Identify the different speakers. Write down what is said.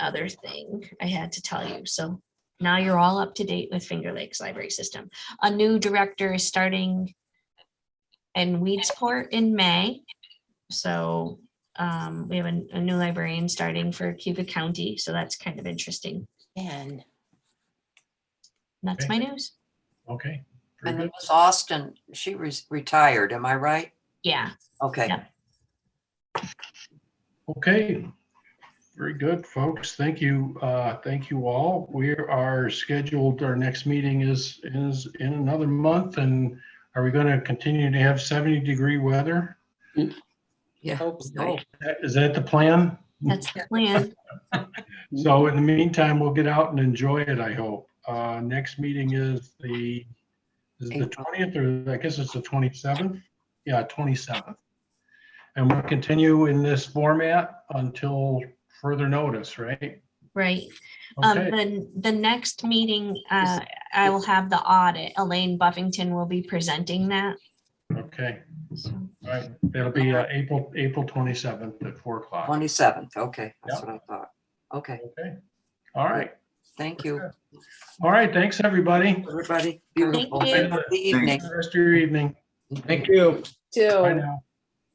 Speaker 1: other thing I had to tell you. So now you're all up to date with Finger Lakes Library System. A new director is starting in Weedsport in May. So um, we have a, a new librarian starting for Cuba County, so that's kind of interesting.
Speaker 2: And,
Speaker 1: And That's my news.
Speaker 3: Okay. very
Speaker 4: And then
Speaker 3: good.
Speaker 4: Miss Austin, she was retired, am I right?
Speaker 1: Yeah.
Speaker 4: Okay.
Speaker 1: Yeah.
Speaker 3: Okay. Very good, folks. Thank you. Uh, thank you all. We are scheduled, our next meeting is, is in another month and are we going to continue to have 70 degree weather?
Speaker 4: Yeah.
Speaker 2: hope
Speaker 4: No.
Speaker 2: so.
Speaker 3: That- Is that the plan?
Speaker 1: That's the plan.
Speaker 3: So in the meantime, we'll get out and enjoy it, I hope. Uh, next meeting is the, is it the
Speaker 4: April.
Speaker 3: twentieth or I guess it's the twenty-seventh? Yeah, twenty-seventh. And we'll continue in this format until further notice, right?
Speaker 1: Right. Um,
Speaker 3: Okay,
Speaker 1: then the next meeting, uh, I will have the audit. Elaine Buffington will be presenting that.
Speaker 3: okay.
Speaker 1: So,
Speaker 3: All right, that'll be uh, April, April twenty-seventh at four o'clock.
Speaker 4: Oh, Twenty-seventh, okay, that's what I thought. Okay,
Speaker 3: Okay, all right,
Speaker 4: thank you,
Speaker 3: all right, thanks, everybody.
Speaker 4: everybody. Beautiful.
Speaker 1: you.
Speaker 4: Have a good Evening.
Speaker 3: Rest of your evening.
Speaker 5: Thank you.
Speaker 3: Bye
Speaker 6: Too.
Speaker 3: now.